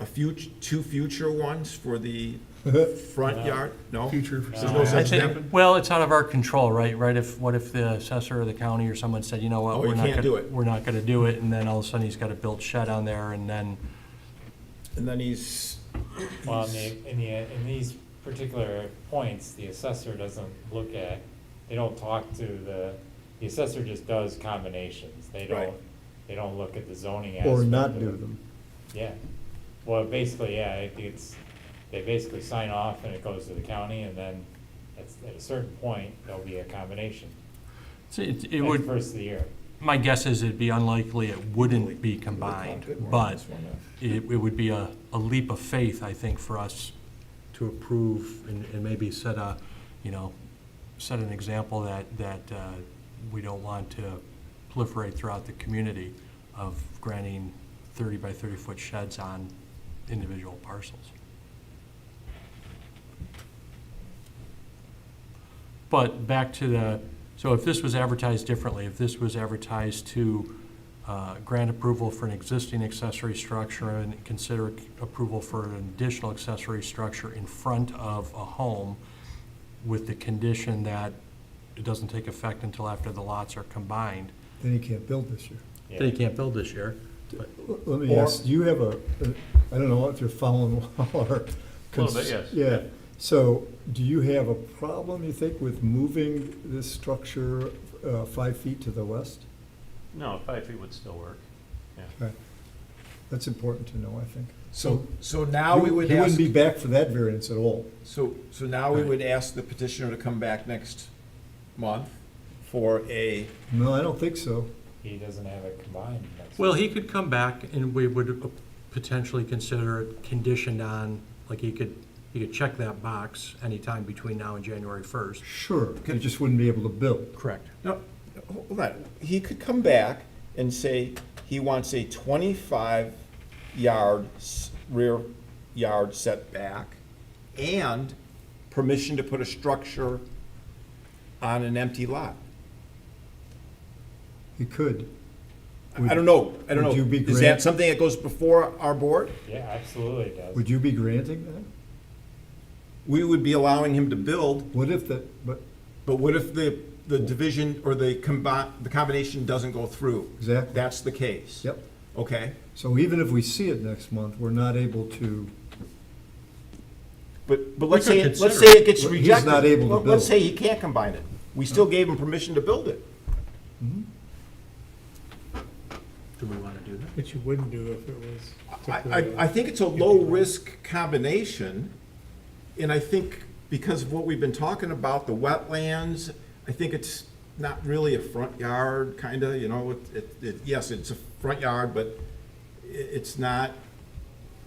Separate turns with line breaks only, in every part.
a future, two future ones for the front yard? No?
Future.
There's no
I
such thing?
think, well, it's out of our control, right? Right, if, what if the assessor or the county or someone said, you know what?
Oh,
we're
you
not
can't
gonna-
do it.
We're not gonna do it, and then all of a sudden he's got a built shed on there, and then,
And then he's,
Well, in the, in the, in these particular points, the assessor doesn't look at, they don't talk to the, the assessor just does combinations. They
Right.
don't, they don't look at the zoning aspect.
Or not
of
do
it.
them.
Yeah, well, basically, yeah, it- it's, they basically sign off and it goes to the county and then at, at a certain point, there'll be a combination.
it's- it it
Like
would,
First of the year.
My guess is it'd be unlikely it wouldn't be combined, but it, it would be a, a leap of faith, I think, for us to approve and, and maybe set a, you know, set an example that, that uh, we don't want to proliferate throughout the community of granting thirty by thirty-foot sheds on individual parcels. But back to the, so if this was advertised differently, if this was advertised to uh, grant approval for an existing accessory structure and consider approval for an additional accessory structure in front of a home with the condition that it doesn't take effect until after the lots are combined,
Then you can't build this year.
Yeah.
they can't build this year.
L- Let me ask, do you have a, a- I don't know if you're following our.
Little bit, yes.
Yeah, so do you have a problem, you think, with moving this structure uh, five feet to the west?
No, five feet would still work.
That's important to know, I think.
So, so now we would
You
ask,
wouldn't be back for that variance at all.
so, so now we would ask the petitioner to come back next month for a,
No, I don't think so.
He doesn't have it combined. that's-
Well, he could come back and we would uh, potentially consider it conditioned on, like he could, he could check that box anytime between now and January first.
Sure, you just wouldn't be able to build.
Correct.
no, hold on. He could come back and say he wants a twenty-five yard s- rear yard setback and permission to put a structure on an empty lot.
You could.
I don't know, I don't know.
Would you be
Is
grand-
that something that goes before our board?
Yeah, absolutely it does.
Would you be granting that?
We would be allowing him to build,
What if that, but,
but what if the, the division or the combi, the combination doesn't go through?
Exactly.
That's the case?
yep.
Okay,
So even if we see it next month, we're not able to,
but, but let's say,
could
it- let's say
consider it.
it gets
He's
rejected.
not able to
Let- Let's
build.
say he can't combine it. We still gave him permission to build it.
Do we want to do that?
Which you wouldn't do if it was.
I,
typically-
I, I think it's a low-risk combination, and I think because of what we've been talking about, the wetlands, I think it's not really a front yard, kinda, you know, it- it, it, yes, it's a front yard, but i it's not,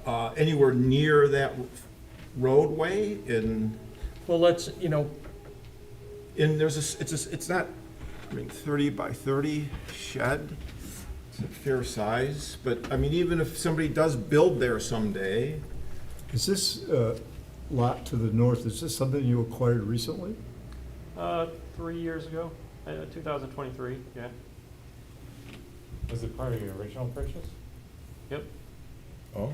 uh, anywhere near that roadway, and,
Well, let's, you know,
and there's a, s- it's a, s- it's not, I mean, thirty by thirty shed, it's a fair size, but, I mean, even if somebody does build there someday,
is this uh, lot to the north, is this something you acquired recently?
Uh, three years ago, uh, 2023, yeah,
Was it part of your original purchase?
yep.
Oh.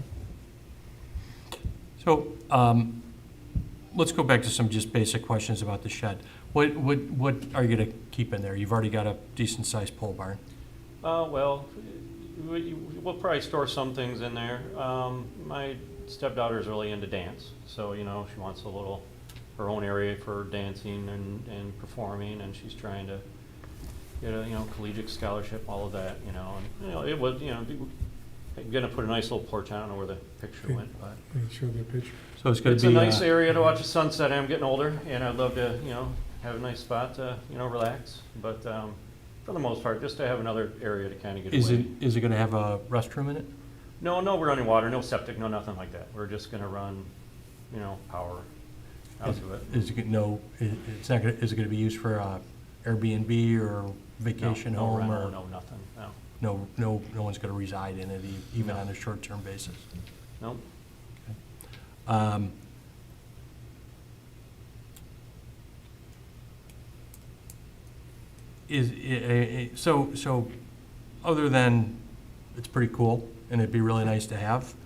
so, um, let's go back to some just basic questions about the shed. What, what, what are you going to keep in there? You've already got a decent-sized pole barn.
Uh, well, we, you- we'll probably store some things in there. Um, my stepdaughter's really into dance, so, you know, she wants a little, her own area for dancing and, and performing, and she's trying to get a, you know, collegiate scholarship, all of that, you know, and, you know, it was, you know, be- I'm gonna put a nice little porch, I don't know where the picture went, but.
Can you show the picture?
So it's going
It's
to
a
be.
nice
uh,
area to watch the sunset. I'm getting older, and I'd love to, you know, have a nice spot to, you know, relax. But um, for the most part, just to have another area to kind of get
Is
away.
it, is it going to have a restroom in it?
No, no running water, no septic, no nothing like that. We're just gonna run, you know, power out to it.
Is it, no, i- it's not going, to is it going to be used for uh, Airbnb or
No,
vacation
no
home
rental,
or?
No, nothing, no.
No, no, no one's going to reside in it, e- even on a short-term basis.
Nope.
Um, Is, eh, i- i- i- so, so, other than, it's pretty cool, and it'd be really nice to have,